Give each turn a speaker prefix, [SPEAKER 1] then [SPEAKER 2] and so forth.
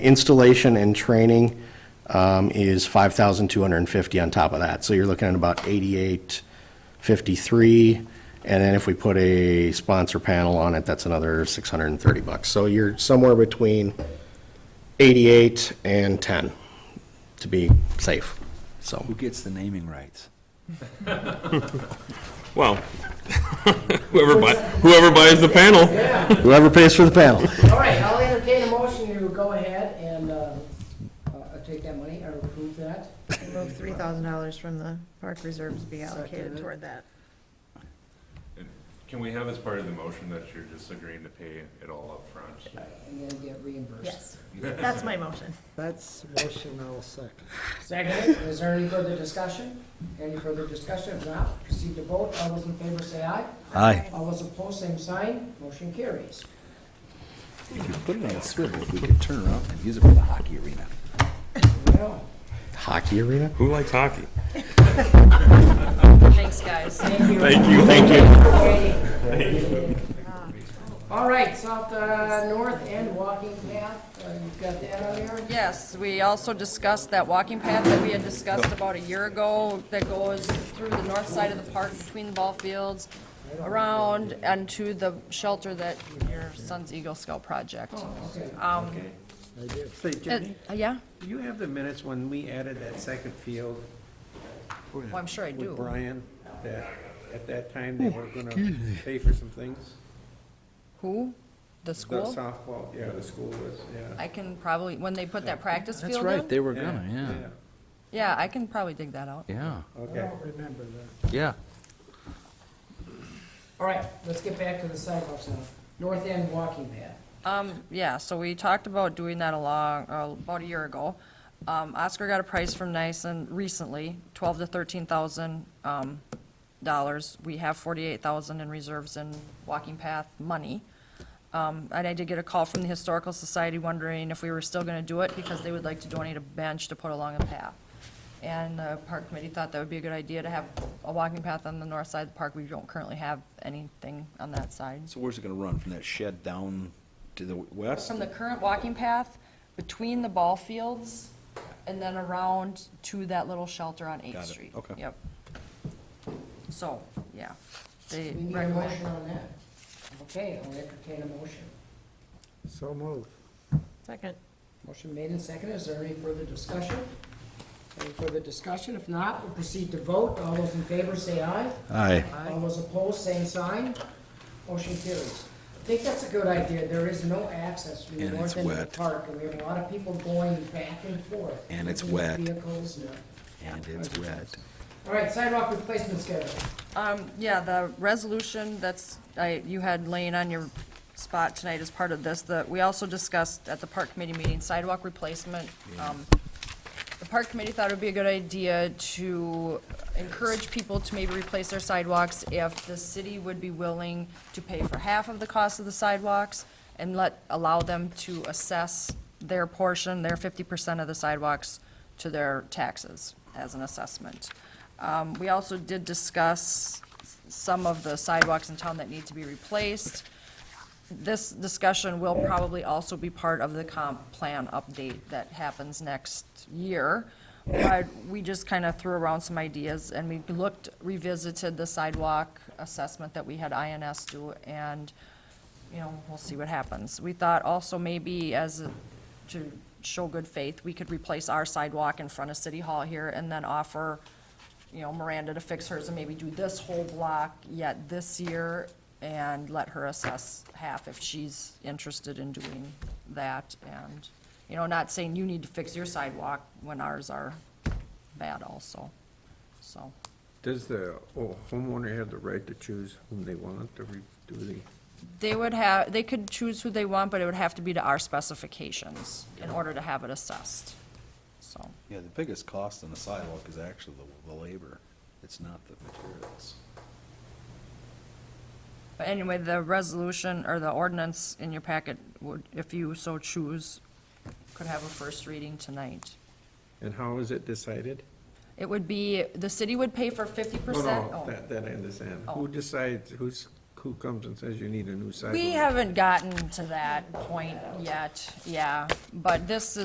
[SPEAKER 1] Installation and training um, is 5,250 on top of that, so you're looking at about 8853, and then if we put a sponsor panel on it, that's another 630 bucks. So you're somewhere between 88 and 10, to be safe, so.
[SPEAKER 2] Who gets the naming rights?
[SPEAKER 3] Well, whoever buys, whoever buys the panel.
[SPEAKER 1] Whoever pays for the panel.
[SPEAKER 4] All right, I'll entertain a motion to go ahead and uh, uh, take that money or approve that.
[SPEAKER 5] Move three thousand dollars from the park reserves be allocated
[SPEAKER 4] Second.
[SPEAKER 5] toward that.
[SPEAKER 6] Can we have as part of the motion that you're just agreeing to pay it all upfront?
[SPEAKER 4] uh, And then get reimbursed.
[SPEAKER 5] Yes, that's my motion.
[SPEAKER 7] That's motion I'll second.
[SPEAKER 4] Second, is there any further discussion? Any further discussion? If not, proceed to vote. All those in favor say aye.
[SPEAKER 2] Aye.
[SPEAKER 4] All those opposed, same sign. Motion carries.
[SPEAKER 2] If you put it on a swivel, we could turn around and use it for the hockey arena.
[SPEAKER 4] Well,
[SPEAKER 1] Hockey arena?
[SPEAKER 3] Who likes hockey?
[SPEAKER 8] Thanks, guys.
[SPEAKER 3] Thank you. Thank you.
[SPEAKER 4] All right, south, uh, north end walking path, Uh, you've got that on there?
[SPEAKER 8] Yes, we also discussed that walking path that we had discussed about a year ago that goes through the north side of the park between the ball fields, around and to the shelter that your son's Eagle Scout project. Um,
[SPEAKER 9] So Jenny,
[SPEAKER 8] uh, Yeah,
[SPEAKER 9] do you have the minutes when we added that second field
[SPEAKER 8] well, I'm sure I do.
[SPEAKER 9] with Brian? That at that time, they were gonna pay for some things?
[SPEAKER 8] Who? The
[SPEAKER 9] The
[SPEAKER 8] school?
[SPEAKER 9] softball, yeah, the school was, yeah.
[SPEAKER 8] I can probably, when they put that practice
[SPEAKER 2] That's
[SPEAKER 8] field
[SPEAKER 2] right,
[SPEAKER 8] in?
[SPEAKER 2] they were gonna,
[SPEAKER 8] Yeah, I can probably dig that out.
[SPEAKER 2] yeah,
[SPEAKER 9] yeah, okay.
[SPEAKER 7] Remember that.
[SPEAKER 2] yeah, yeah.
[SPEAKER 4] All right, let's get back to the sidewalks now. North end walking path.
[SPEAKER 8] Um, yeah, so we talked about doing that a long, uh, about a year ago. Um, Oscar got a price from Nyson recently, twelve to thirteen thousand, um, dollars. We have forty-eight thousand in reserves in walking path money. Um, and I did get a call from the Historical Society wondering if we were still gonna do it because they would like to donate a bench to put along a path. And the park committee thought that would be a good idea to have a walking path on the north side of the park. We don't currently have anything on that side.
[SPEAKER 2] So where's it gonna run, from that shed down to the west?
[SPEAKER 8] From the current walking path between the ball fields and then around to that little shelter on
[SPEAKER 2] Got
[SPEAKER 8] Eighth
[SPEAKER 2] it,
[SPEAKER 8] Street.
[SPEAKER 2] okay.
[SPEAKER 8] Yep. So, yeah, they
[SPEAKER 4] We need a
[SPEAKER 8] recommend.
[SPEAKER 4] motion on that. Okay, I'll entertain a motion.
[SPEAKER 7] So moved.
[SPEAKER 5] Second.
[SPEAKER 4] Motion made and seconded. Is there any further discussion? Any further discussion? If not, we'll proceed to vote. All those in favor say aye.
[SPEAKER 2] Aye.
[SPEAKER 4] All those opposed, same sign. Motion carries. I think that's a good idea. There is no access from the
[SPEAKER 2] And
[SPEAKER 4] north
[SPEAKER 2] it's
[SPEAKER 4] end of the
[SPEAKER 2] wet.
[SPEAKER 4] park, and we have a lot of people going back and forth.
[SPEAKER 2] And it's
[SPEAKER 4] between
[SPEAKER 2] wet.
[SPEAKER 4] Vehicles, no.
[SPEAKER 2] And it's wet.
[SPEAKER 4] All right, sidewalk replacement schedule.
[SPEAKER 8] Um, yeah, the resolution that's, I, you had laying on your spot tonight as part of this, that, we also discussed at the park committee meeting sidewalk replacement. Um, The park committee thought it would be a good idea to encourage people to maybe replace their sidewalks if the city would be willing to pay for half of the cost of the sidewalks and let, allow them to assess their portion, their fifty percent of the sidewalks to their taxes as an assessment. Um, we also did discuss some of the sidewalks in town that need to be replaced. This discussion will probably also be part of the comp plan update that happens next year. But we just kind of threw around some ideas and we looked, revisited the sidewalk assessment that we had INS do and, you know, we'll see what happens. We thought also maybe as, a- to show good faith, we could replace our sidewalk in front of City Hall here and then offer you know, Miranda to fix hers and maybe do this whole block yet this year and let her assess half if she's interested in doing that and, you know, not saying you need to fix your sidewalk when ours are bad also, so.
[SPEAKER 9] Does the oh, homeowner have the right to choose whom they want to re- do the,
[SPEAKER 8] They would have, they could choose who they want, but it would have to be to our specifications in order to have it assessed, so.
[SPEAKER 2] Yeah, the biggest cost on the sidewalk is actually the, the labor, it's not the materials.
[SPEAKER 8] But anyway, the resolution or the ordinance in your packet would, if you so choose, could have a first reading tonight.
[SPEAKER 9] and how is it decided?
[SPEAKER 8] It would be, the city would pay for fifty
[SPEAKER 9] Oh, No,
[SPEAKER 8] percent?
[SPEAKER 9] no, that, that I understand.
[SPEAKER 8] Oh.
[SPEAKER 9] Who decides, who's, who comes and says you need a new sidewalk?
[SPEAKER 8] We haven't gotten to that point yet, yeah, but this is.